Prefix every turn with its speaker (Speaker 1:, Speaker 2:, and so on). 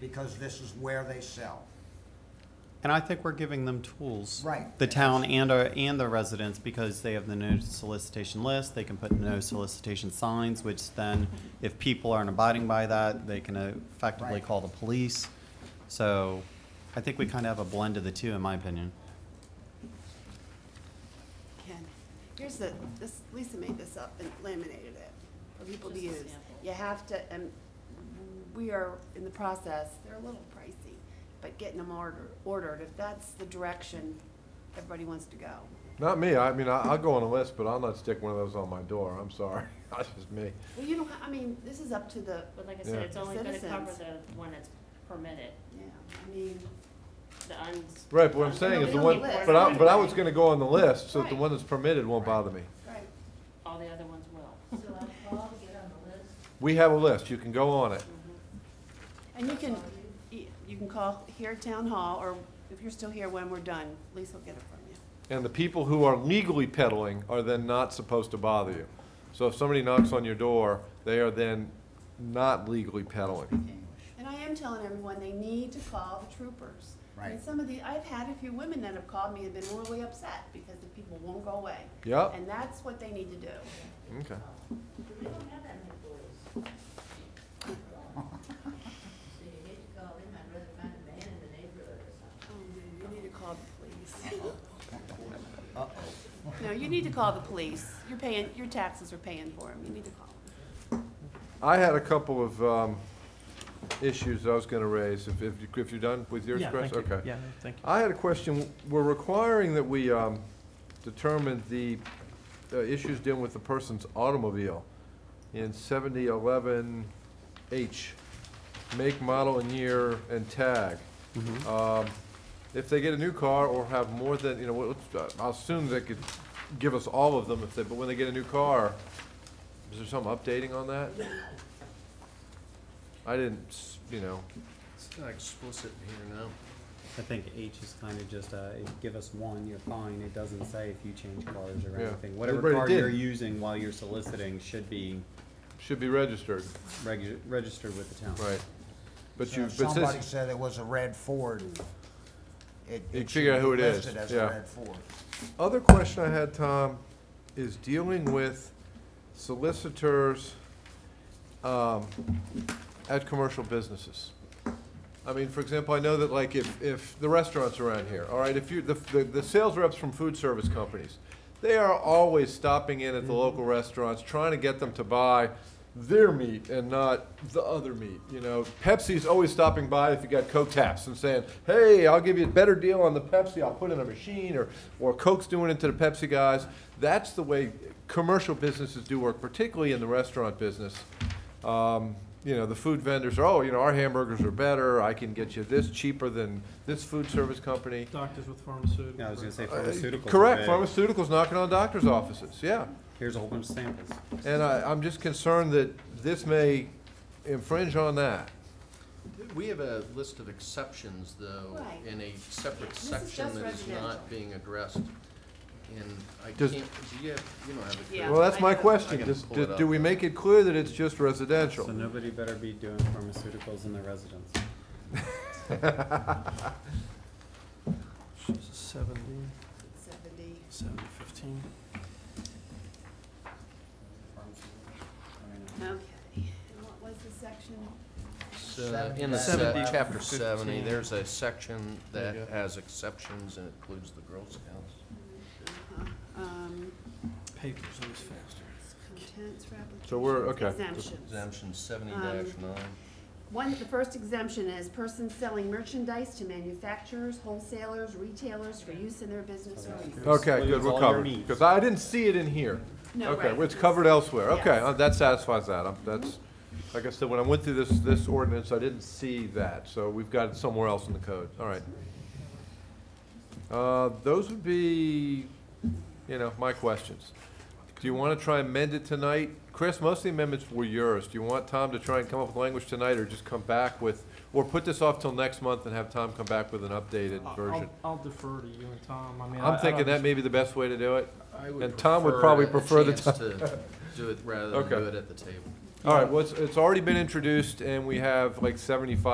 Speaker 1: because this is where they sell.
Speaker 2: And I think we're giving them tools.
Speaker 1: Right.
Speaker 2: The town and our, and the residents, because they have the no solicitation list, they can put no solicitation signs, which then, if people aren't abiding by that, they can uh, effectively
Speaker 1: Right.
Speaker 2: call the police. So I think we kind of have a blend of the two, in my opinion.
Speaker 3: Ken, here's the, this, Lisa made this up and laminated it for people to
Speaker 4: Just a
Speaker 3: use.
Speaker 4: sample.
Speaker 3: You have to, and we are in the process, they're a little pricey, but getting them order, ordered, if that's the direction everybody wants to go.
Speaker 5: Not me. I mean, I, I'll go on a list, but I'll not stick one of those on my door. I'm sorry. That's just me.
Speaker 3: Well, you don't, I mean, this is up to the,
Speaker 4: But like I said,
Speaker 5: Yeah.
Speaker 4: it's only gonna cover
Speaker 3: Citizens.
Speaker 4: the one that's permitted,
Speaker 3: yeah, I mean,
Speaker 4: the uns.
Speaker 5: Right, but what I'm saying is the one, but I, but I was gonna go on the list, so that the one that's permitted won't bother me.
Speaker 3: right.
Speaker 4: All the other ones will.
Speaker 6: So I'll call to get on the list.
Speaker 5: We have a list. You can go on it.
Speaker 3: And you can, y- you can call here at Town Hall, or if you're still here when we're done, Lisa will get it from you.
Speaker 5: And the people who are legally peddling are then not supposed to bother you. So if somebody knocks on your door, they are then not legally peddling.
Speaker 3: And I am telling everyone, they need to call the troopers. I mean,
Speaker 1: Right.
Speaker 3: some of the, I've had a few women that have called me and been really upset because the people won't go away.
Speaker 5: Yep.
Speaker 3: And that's what they need to do.
Speaker 5: Okay.
Speaker 6: We don't have that many boys. So you hate to call him, I'd rather find a man in the neighborhood or something.
Speaker 3: Oh, man, You need to call the police. No, you need to call the police. You're paying, your taxes are paying for them. You need to call them.
Speaker 5: I had a couple of, um, issues I was gonna raise. If, if, you- if you're done with yours, Chris? Okay.
Speaker 7: Yeah, thank you.
Speaker 5: I had a question. We're requiring that we um, determine the uh, issues dealing with the person's automobile in 7011H, make, model, and year, and tag. Um, If they get a new car or have more than, you know, what- what's- uh, I'll assume they could give us all of them if they, but when they get a new car, is there some updating on that? I didn't, s- you know,
Speaker 8: It's not explicit here now.
Speaker 2: I think H is kind of just, uh, give us one, you're fine. It doesn't say if you change cars or
Speaker 5: Yeah.
Speaker 2: anything. Whatever
Speaker 5: Everybody
Speaker 2: car you're
Speaker 5: did.
Speaker 2: using while you're soliciting should be
Speaker 5: should be registered,
Speaker 2: regu- registered with the town.
Speaker 5: right? But
Speaker 1: So
Speaker 5: you,
Speaker 1: if
Speaker 5: but since-
Speaker 1: Somebody said it was a red Ford. It-
Speaker 5: You
Speaker 1: it
Speaker 5: figure
Speaker 1: should
Speaker 5: out who
Speaker 1: be
Speaker 5: it is,
Speaker 1: listed as a
Speaker 5: yeah.
Speaker 1: red Ford.
Speaker 5: Other question I had, Tom, is dealing with solicitors um, at commercial businesses. I mean, for example, I know that like if, if the restaurants around here, all right, if you, the, the the sales reps from food service companies, they are always stopping in at the local restaurants, trying to get them to buy their meat and not the other meat, you know? Pepsi's always stopping by if you got Coke taps and saying, hey, I'll give you a better deal on the Pepsi, I'll put in a machine, or, or Coke's doing it to the Pepsi guys. That's the way commercial businesses do work, particularly in the restaurant business um, you know, the food vendors are, oh, you know, our hamburgers are better, I can get you this cheaper than this food service company.
Speaker 7: Doctors with pharmaceuticals.
Speaker 2: Yeah, I was gonna say
Speaker 5: Uh,
Speaker 2: pharmaceuticals. are
Speaker 5: Correct,
Speaker 2: big.
Speaker 5: pharmaceuticals knocking on doctors' offices, yeah.
Speaker 2: Here's a whole bunch of samples.
Speaker 5: And I, I'm just concerned that this may infringe on that.
Speaker 8: We have a list of exceptions, though,
Speaker 3: Right.
Speaker 8: in a separate
Speaker 3: is
Speaker 8: section
Speaker 3: just
Speaker 8: that is
Speaker 3: residential.
Speaker 8: not being addressed. And I can't,
Speaker 5: Does-
Speaker 8: do you have, you don't have it.
Speaker 3: Yeah.
Speaker 5: Well, that's my
Speaker 3: I-
Speaker 5: question,
Speaker 8: I can
Speaker 5: Does-
Speaker 8: pull
Speaker 5: do
Speaker 8: it up.
Speaker 5: do we make it clear that it's just
Speaker 2: So
Speaker 5: residential?
Speaker 2: nobody better be doing pharmaceuticals in their residence.
Speaker 7: Seventy,
Speaker 3: Seventy.
Speaker 7: seventy, fifteen.
Speaker 3: Okay. And what was the section?
Speaker 8: It's, uh, In the
Speaker 7: Seventy.
Speaker 8: se- chapter seventy,
Speaker 7: Fifteen.
Speaker 8: there's a section
Speaker 7: There
Speaker 8: that
Speaker 7: you go.
Speaker 8: has exceptions and includes the Girl Scouts.
Speaker 3: Uh-huh. Um,
Speaker 7: Papers, it was faster.
Speaker 3: contents for applications.
Speaker 5: So we're- okay.
Speaker 3: Exemptions.
Speaker 8: Exemption seventy
Speaker 3: Um,
Speaker 8: nine.
Speaker 3: One, the first exemption is persons selling merchandise to manufacturers, wholesalers, retailers for use in their business or use.
Speaker 5: Okay, good,
Speaker 2: Includes all
Speaker 5: we're
Speaker 2: your
Speaker 5: covered,
Speaker 2: meats.
Speaker 5: because I didn't see it in here.
Speaker 3: No,
Speaker 5: Okay,
Speaker 3: right.
Speaker 5: well, it's covered elsewhere, okay,
Speaker 3: Yes. Mm-hmm.
Speaker 5: uh, that satisfies that, I'm, that's, like I said, when I went through this, this ordinance, I didn't see that, so we've got it somewhere else in the code, all right. Uh, those would be, you know, my questions. Do you wanna try and amend it tonight? Chris, most of the amendments were yours, do you want Tom to try and come up with language tonight, or just come back with, or put this off till next month and have Tom come back with an updated
Speaker 7: I'll-
Speaker 5: version?
Speaker 7: I'll I'll defer to you and Tom, I mean. I- I
Speaker 5: I'm
Speaker 7: don't
Speaker 5: thinking that
Speaker 7: just-
Speaker 5: may be the best way to do it.
Speaker 8: I would
Speaker 5: And Tom would probably prefer the
Speaker 8: a chance to do it rather than
Speaker 5: Okay.
Speaker 8: do it at the table.
Speaker 5: All right, well, it's, it's already been introduced, and we have like seventy-five